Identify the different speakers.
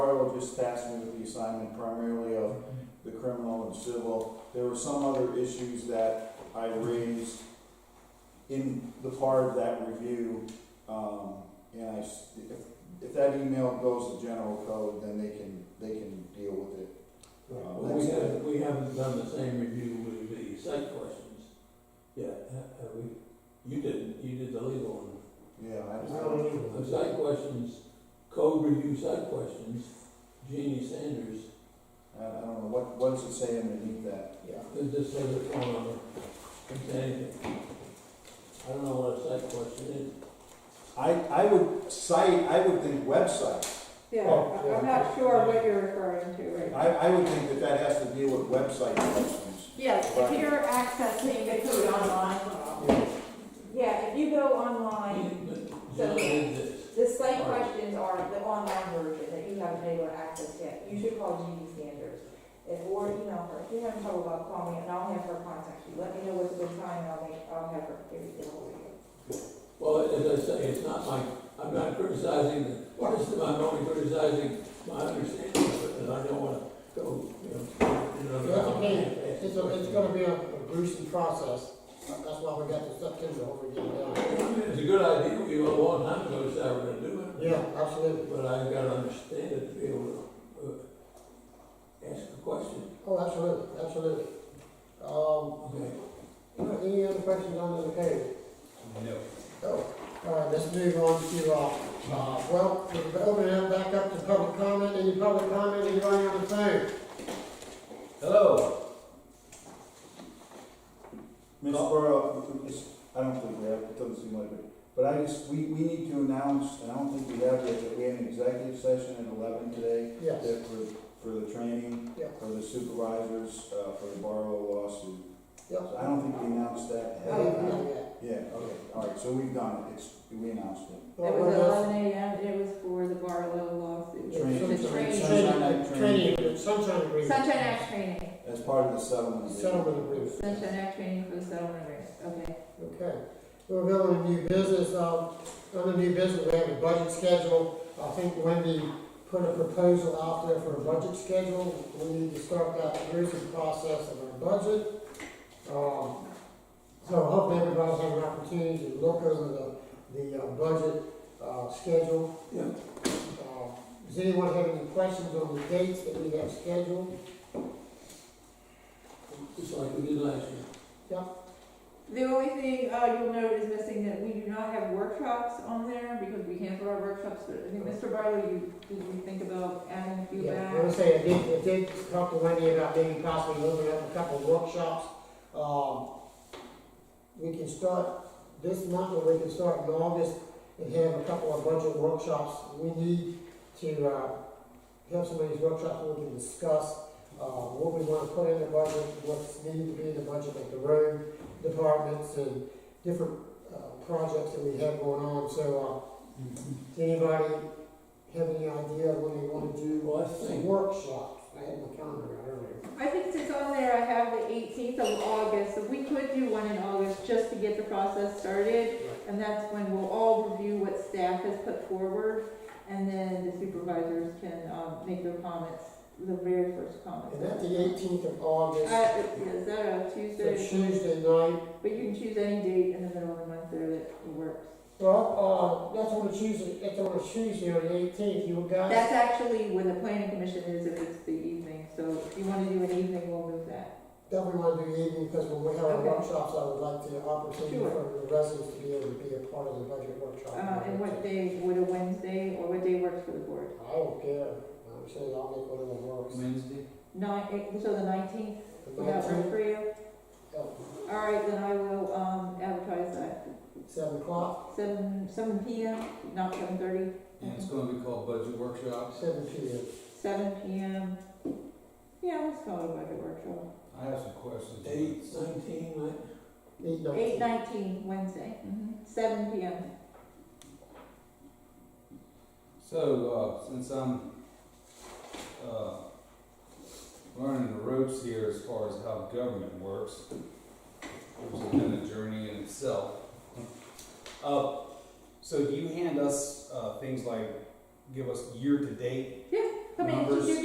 Speaker 1: focus tasked me with the assignment primarily of the criminal and civil. There were some other issues that I raised in the part of that review. Um, and I, s- if, if that email goes to general code, then they can, they can deal with it.
Speaker 2: Well, we haven't, we haven't done the same review with the site questions yet, ha- have uh, we? You didn't, you did the legal
Speaker 1: Yeah, I understand.
Speaker 2: one. The site questions, code review site questions, Jeannie Sanders,
Speaker 1: I, I don't know, what, what does it say underneath that?
Speaker 3: Yeah.
Speaker 2: it just says it on, on, it's anything. uh, I don't know what a site question is.
Speaker 1: I, I would cite, I would think website.
Speaker 3: Yeah,
Speaker 2: Oh,
Speaker 3: I- I'm
Speaker 2: yeah.
Speaker 3: not sure what you're referring to right now.
Speaker 1: I, I would think that that has to deal with website questions.
Speaker 4: Yeah, if you're accessing the code online. Yeah, if you go online,
Speaker 2: Jill did this.
Speaker 4: the site questions are the online version that you haven't been able to access yet. You should call Judy Sanders and- or email her. If you're having trouble about calling me, and I'll have her contact you. Let me know what's a good time, and I'll make, I'll have her give you the whole deal.
Speaker 2: Well, as I say, it's not my, I'm not criticizing, the this is, I'm only criticizing my understanding of it, and I don't wanna go, you know. you know,
Speaker 5: That's okay.
Speaker 2: down-
Speaker 5: It's, a- it's gonna be a a gruesome process, but that's why we got to September, hopefully get it done.
Speaker 2: It's a good idea, we were a long time ago, decided we're gonna do it.
Speaker 5: Yeah, absolutely.
Speaker 2: But I've gotta understand it to be able to, uh, ask a question,
Speaker 5: Oh, absolutely, absolutely. Um,
Speaker 2: okay?
Speaker 5: any other questions on the case?
Speaker 6: No.
Speaker 5: Oh, all right, let's move on to, uh, uh, well, we're opening up back up to public comment, any public comment, anybody on the phone?
Speaker 6: Hello.
Speaker 1: Ms. Burrow, it's- I don't think we have, it doesn't seem like it, but I just, we, we need to announce, and I don't think we have yet, that we have an executive session at eleven today
Speaker 5: Yes,
Speaker 1: that for, for the training,
Speaker 5: Yeah.
Speaker 1: for the supervisors, uh, for the Barlow lawsuit.
Speaker 5: yep.
Speaker 1: So I don't think we announced that.
Speaker 5: I didn't know that.
Speaker 1: Yeah, okay, all right, so we've done it, it's, we announced it.
Speaker 5: Well,
Speaker 3: It was
Speaker 5: well,
Speaker 3: eleven AM, it was for the Barlow lawsuit.
Speaker 5: that's-
Speaker 1: Training.
Speaker 3: The training,
Speaker 1: Sunshine Act
Speaker 5: Training, training, sunshine agreement.
Speaker 3: Sunshine Act training,
Speaker 1: As part of the settlement. agreement.
Speaker 5: Settlement agreement.
Speaker 3: Sunshine Act training for the settlement agreement, okay.
Speaker 5: Okay, we'll go on to new business, um, on the new business, we have a budget schedule. I think Wendy put a proposal out there for a budget schedule. We need to start that review process of our budget. Um, so hopefully everybody's had an opportunity to look over the, the uh, budget, uh, schedule.
Speaker 2: Yeah.
Speaker 5: Uh, Does anyone have any questions on the dates that we have scheduled?
Speaker 2: Just like we did last year.
Speaker 3: The only thing, uh, you'll note is missing that we do not have workshops on there because we canceled our workshops, but I think, Mr. Barlow, you, did you think about adding a few
Speaker 5: Yeah,
Speaker 3: back?
Speaker 5: I would say, I did, I did talk to Wendy about maybe possibly opening up a couple of workshops. Um, we can start this month, or we can start in August and have a couple of budget workshops. We need to, uh, have some of these workshops where we can discuss, uh, what we wanna put in the budget, what's needed to be in the budget, like the road departments and different, uh, projects that we have going on. So, uh, does anybody have any idea what they wanna do
Speaker 2: Well, I think,
Speaker 5: workshops, I had my calendar out earlier.
Speaker 3: I think since on there, I have the eighteenth of August, so we could do one in August just to get the process started. And that's when we'll all review what staff has put forward, and then the supervisors can, um, make their comments, the very first
Speaker 5: And
Speaker 3: comments.
Speaker 5: that's the eighteenth of
Speaker 3: Uh,
Speaker 5: August,
Speaker 3: is that a
Speaker 5: so
Speaker 3: Tuesday?
Speaker 5: Tuesday night,
Speaker 3: But you can choose any date in the middle of the month there that works.
Speaker 5: well, uh, that's on a Tuesday, that's on a Tuesday on the eighteenth, you guys?
Speaker 3: That's actually when the planning commission is, if it's the evening, so if you wanna do an evening, we'll move that.
Speaker 5: Definitely wanna do the evening, because when we have our
Speaker 3: Okay.
Speaker 5: workshops, I would like the opportunity
Speaker 3: Sure.
Speaker 5: for the residents to be able to be a part of the budget workshop.
Speaker 3: Uh, and what day, would a Wednesday, or what day works for the board?
Speaker 5: I don't care, I'm saying I'll make whatever works.
Speaker 6: Wednesday?
Speaker 3: Nine, eh, so the nineteenth,
Speaker 5: The
Speaker 3: would that work
Speaker 5: nineteenth,
Speaker 3: for you? All right, then I will, um, advertise that,
Speaker 5: seven o'clock,
Speaker 3: seven, seven P M, not seven thirty,
Speaker 6: And it's gonna be called budget workshops.
Speaker 5: seven P M.
Speaker 3: seven P M. Yeah, let's call it a budget workshop.
Speaker 6: I have some questions.
Speaker 2: eight, nineteen, right?
Speaker 5: Eight nineteen.
Speaker 3: Eight nineteen, Wednesday,
Speaker 6: Mm-hmm.
Speaker 3: mhm, seven P M.
Speaker 6: So, uh, since I'm, uh, learning the ropes here as far as how government works, which has been a journey in itself. Uh, so do you hand us, uh, things like, give us year-to-date
Speaker 3: Yeah,